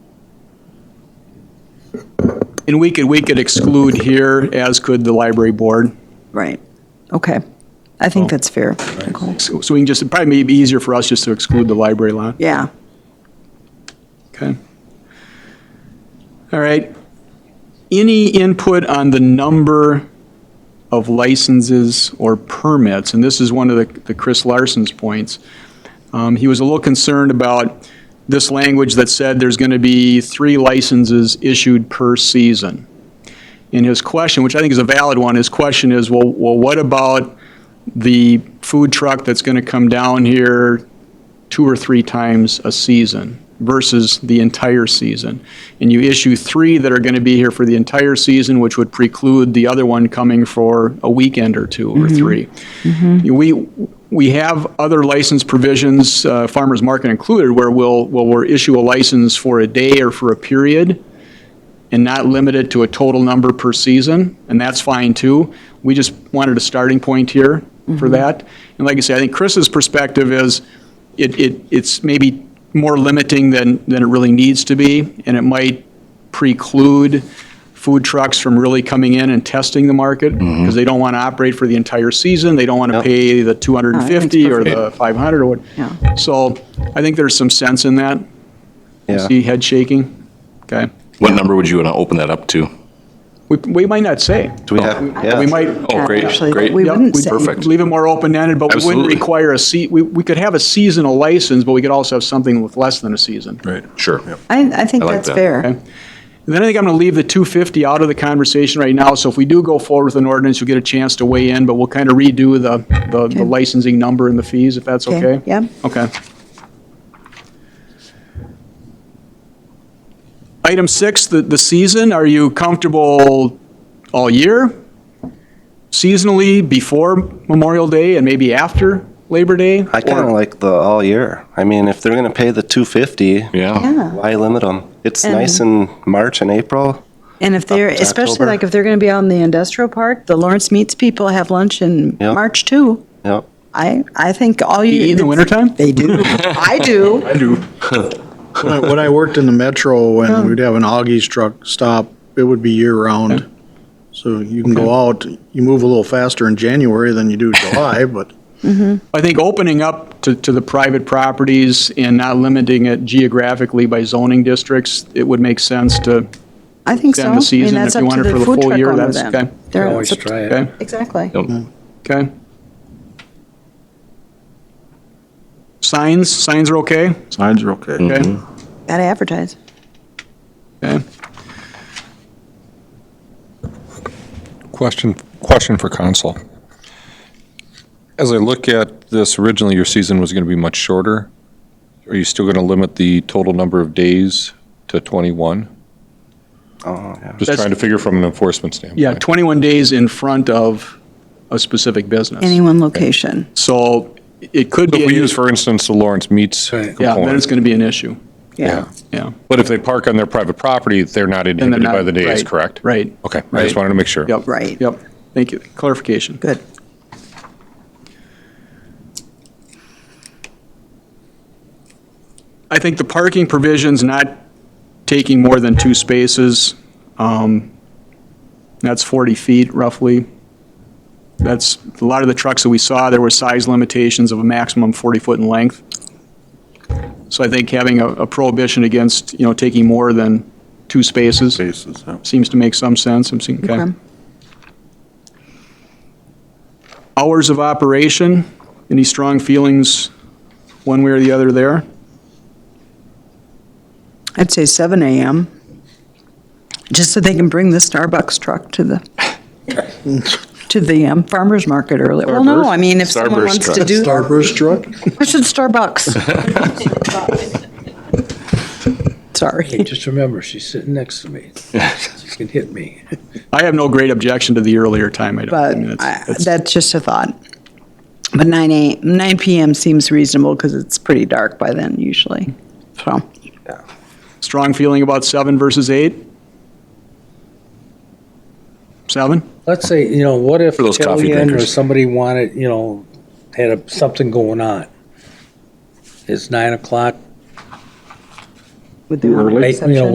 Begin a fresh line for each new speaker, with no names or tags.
And we could, we could exclude here, as could the library board.
Right. Okay. I
Oh.
think that's fair. Nicole.
So so we can just, it'd probably be easier for us just to exclude the library lot.
Yeah.
Okay. All right. Any input on the number of licenses or permits? And this is one of the the Chris Larson's points. Um, He was a little concerned about this language that said there's going to be three licenses issued per season. And his question, which I think is a valid one, his question is, well, well, what about the food truck that's going to come down here two or three times a season versus the entire season. And you issue three that are going to be here for the entire season, which would preclude the other one coming for a weekend or two or three. We, we have other license provisions, uh, farmer's market included, where we'll, well, we'll issue a license for a day or for a period and not limit it to a total number per season, and that's fine too. We just wanted a starting point here for that. And like I say, I think Chris's perspective is it, it, it's maybe more limiting than, than it really needs to be, and it might preclude food trucks from really coming in and testing the market because they don't want to operate for the entire season. They don't want to pay the 250 or the 500 or what.
Yeah.
So I think there's some sense in that.
Yeah.
See head shaking? Okay.
What number would you want to open that up to?
We, we might not say.
Do we have, yeah.
We might.
Oh, great,
Actually,
great.
we
Yep,
wouldn't
we'd
say.
Perfect.
Leave it more open-ended, but we wouldn't
Absolutely.
require a se, we, we could have a seasonal license, but we could also have something with less than a season.
Right. Sure.
I, I think
I like
that's
Okay.
that.
fair.
And Then I think I'm going to leave the 250 out of the conversation right now, so if we do go forward with an ordinance, you'll get a chance to weigh in, but we'll kind of redo the, the- the licensing number and the fees, if that's
Okay,
okay?
yeah.
Okay. Item six, the, the season, are you comfortable all year? Seasonally, before Memorial Day and maybe after Labor Day?
I kind of
Or-
like the all year. I mean, if they're going to pay the 250,
Yeah.
Yeah.
why limit them? It's
And-
nice in March and April.
And if they're,
Up to
especially
October.
like if they're going to be out in the industrial park, the Lawrence Meats people have lunch in
Yep.
March too.
Yep.
I, I think all you.
In the wintertime?
They do. I do.
When I- When I worked in the metro, when we'd have an Augie's truck stop, it would be year-round. So you can go out, you move a little faster in January than you do July, but
I think opening up to, to the private properties and not limiting it geographically by zoning districts, it would make sense to
I think so.
extend
I
the
mean,
season
that's
if you
up to
want it for
the
the
food
full
truck
year,
owner
that's,
then.
okay,
They're-
Always
it's up to-
try it.
okay,
Exactly.
okay? Signs, signs are okay?
Signs are okay.
Okay,
Mm-hmm.
Gotta advertise.
okay.
Question, question for council. As I look at this, originally your season was going to be much shorter. Are you still going to limit the total number of days to 21?
Oh, yeah.
Just
That's-
trying to figure from an enforcement standpoint.
Yeah, 21 days in front of a specific
Any
business.
one location.
So it could
So
be,
If
an
we use,
issue.
for instance, the Lawrence Meats
Right.
yeah, then it's
component,
going to be an issue,
Yeah.
yeah.
but if they park on their private property, they're not
And they're
inhibited
not-
by the days,
right,
correct?
Right.
Okay, I
Right.
just wanted to make sure.
Yep.
Right.
Yep. Thank you. Clarification.
Good.
I think the parking provision's not taking more than two spaces. Um, That's 40 feet roughly. That's, a lot of the trucks that we saw, there were size limitations of a maximum 40 foot in length. So I think having a- a prohibition against, you know, taking more than two spaces
Bases, yeah.
seems to make some sense. I'm seeing, okay.
Okay.
Hours of operation, any strong feelings one way or the other there?
I'd say seven AM, just so they can bring the Starbucks truck to the, to the um, farmer's market early. Well, no, I mean, if someone
Starburst
wants to
truck.
do,
Starburst truck?
push it Starbucks.
Hey,
Sorry.
just remember, she's sitting next to me. She can hit me.
I have no great objection to the earlier time. I don't. I
But
mean, it's-
I-
it's-
that's just a thought. But nine a, nine PM seems reasonable because it's pretty dark by then usually. So,
Strong feeling about seven versus eight? Seven?
Let's say, you know, what if
For those coffee
Kellyanne or
drinkers.
somebody wanted, you know, had a- something going on? It's nine o'clock.
would they want an
Late- you know,
exception?